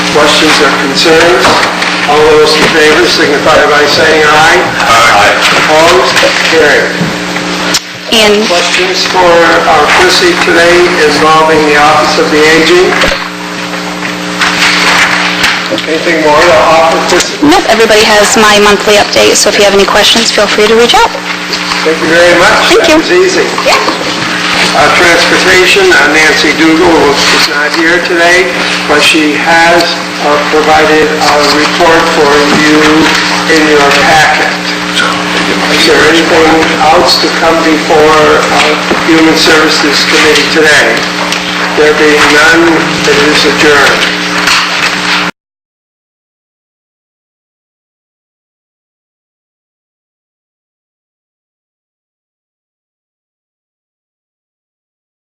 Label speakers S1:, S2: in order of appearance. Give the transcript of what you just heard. S1: Questions or concerns? All those in favor signify by saying aye. Aye. Opposed? Carried.
S2: And
S1: Questions for our Chrissy today involving the Office of the Aging? Anything more to offer, Chrissy?
S2: nope, everybody has my monthly update, so if you have any questions, feel free to reach out.
S1: Thank you very much.
S2: Thank you.
S1: That was easy.
S2: Yeah.
S1: Uh, Transportation, uh, Nancy Dugal is not here today, but she has uh, provided a report for you in your packet. Is there anything else to come before uh, Human Services Committee today? There being none, it is adjourned.